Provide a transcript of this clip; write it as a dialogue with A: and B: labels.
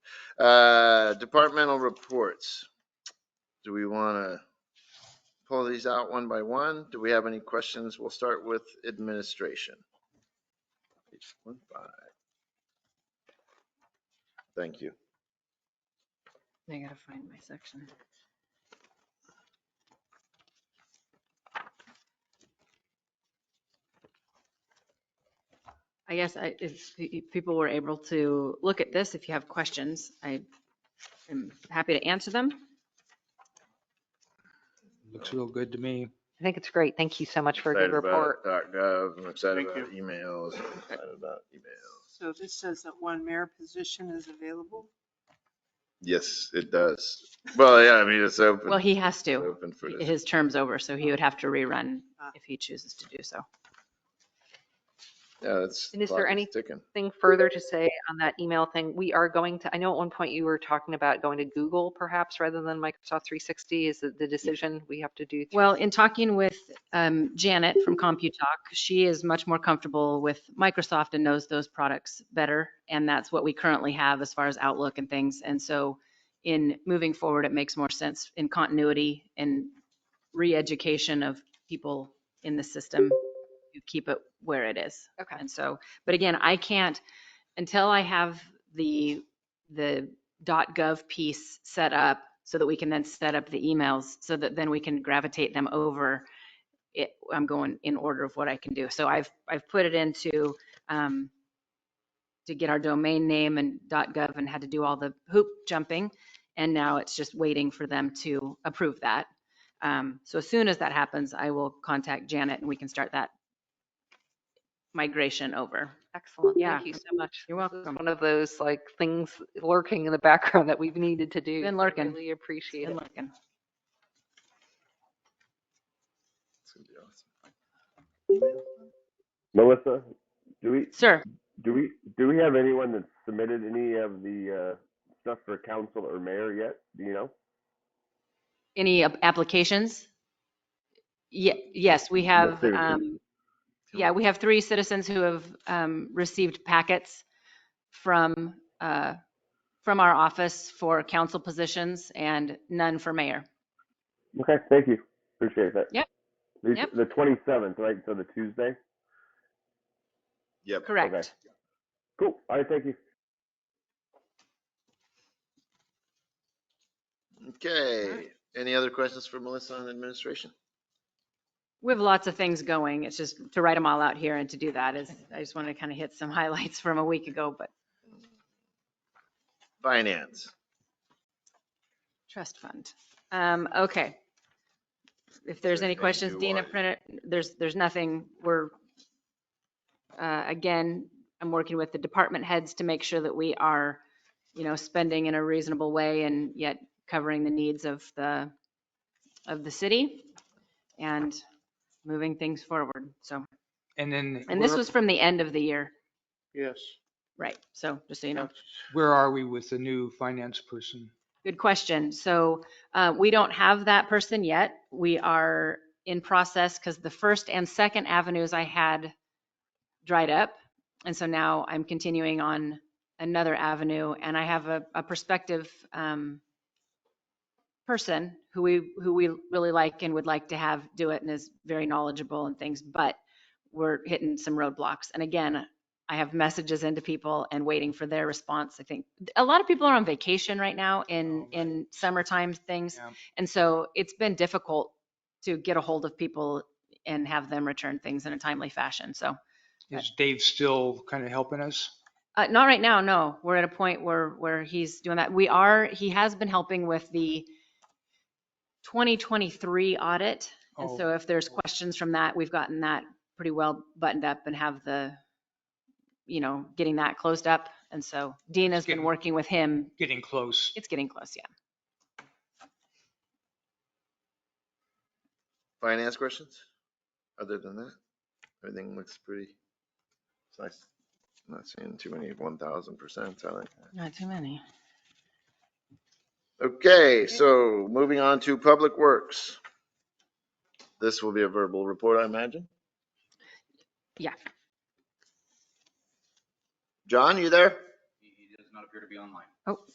A: Uh, departmental reports. Do we want to pull these out one by one? Do we have any questions? We'll start with administration. Page one five. Thank you.
B: I gotta find my section. I guess I, if pe- people were able to look at this, if you have questions, I am happy to answer them.
C: Looks real good to me.
D: I think it's great. Thank you so much for a good
A: Excited
D: report.
A: about .gov. I'm excited
E: Thank
A: about emails. I'm excited about emails.
F: So this says that one mayor position is available.
A: Yes, it does. Well, yeah, I mean, it's open.
B: Well, he has to.
A: Open for this.
B: His term's over, so he would have to rerun if he chooses to do so.
A: Yeah, that's.
D: And is there
A: clock
D: any-
A: Ticking.
D: Thing further to say on that email thing, we are going to, I know at one point you were talking about going to Google perhaps rather than Microsoft 360 is the the decision we have to do. through-
B: Well, in talking with um, Janet from CompuTalk, she is much more comfortable with Microsoft and knows those products better. And that's what we currently have as far as Outlook and things. And so in moving forward, it makes more sense in continuity and re-education of people in the system. You keep it where it is.
D: Okay.
B: And so, but again, I can't, until I have the, the .gov piece set up so that we can then set up the emails so that then we can gravitate them over. It, I'm going in order of what I can do. So I've, I've put it into, um, to get our domain name and .gov and had to do all the hoop jumping. And now it's just waiting for them to approve that. Um, so as soon as that happens, I will contact Janet and we can start that migration over.
D: Excellent.
B: Yeah.
D: Thank you so much.
B: You're
D: This is
B: welcome.
D: One of those like things lurking in the background that we've needed to do.
B: Been
D: so
B: lurking.
D: Really appreciate
B: Good
D: it.
B: looking.
A: It's gonna be awesome.
G: Melissa, do we
B: Sir,
G: do we do we have anyone that's submitted any of the uh, stuff for council or mayor yet? Do you know?
B: any ap- applications? Ye- yes, we have,
G: citizens.
B: um, yeah, we have three citizens who have, um, received packets from, uh, from our office for council positions and none for mayor.
G: Okay, thank you. Appreciate that.
B: Yep.
G: The,
B: Yep.
G: the 27th, right? So the Tuesday.
A: Yep.
B: Correct.
G: Cool. All right, thank you.
A: Okay. Any other questions for Melissa on administration?
B: We have lots of things going. It's just to write them all out here and to do that is, I just wanted to kind of hit some highlights from a week ago, but
A: Finance.
B: trust fund. Um, okay. If there's
A: there
B: any
A: anything
B: questions,
A: you
B: Dina
A: want?
B: printed, there's, there's nothing. We're, uh, again, I'm working with the department heads to make sure that we are, you know, spending in a reasonable way and yet covering the needs of the, of the city and moving things forward. So,
C: And then
B: and this
C: where-
B: was from the end of the year,
E: Yes.
B: right? So just so you know.
C: where are we with the new finance person?
B: Good question. So uh, we don't have that person yet. We are in process because the First and Second Avenues I had dried up. And so now I'm continuing on another avenue and I have a, a prospective um, person who we, who we really like and would like to have do it and is very knowledgeable and things, but we're hitting some roadblocks. And again, I have messages into people and waiting for their response. I think a lot of people are on vacation right now in,
C: Oh, right.
B: in summertime things.
C: Yeah.
B: And so it's been difficult to get a hold of people and have them return things in a timely fashion. So
C: Is Dave still kind of helping us?
B: uh, not right now, no. We're at a point where, where he's doing that. We are, he has been helping with the 2023 audit. And
C: Oh,
B: so if there's questions from that, we've gotten that pretty well buttoned up and have the, you know, getting that closed up. And so Dean has been
C: Getting-
B: working with him.
C: Getting close.
B: It's getting close, yeah.
A: Finance questions? Other than that, everything looks pretty. It's nice. I'm Not seeing too many one thousand percent. I like that.
B: Not too many.
A: Okay, so moving on to public works. This will be a verbal report, I imagine.
B: Yeah.
A: John, you there?
H: He he does not appear to be online.
B: Oh,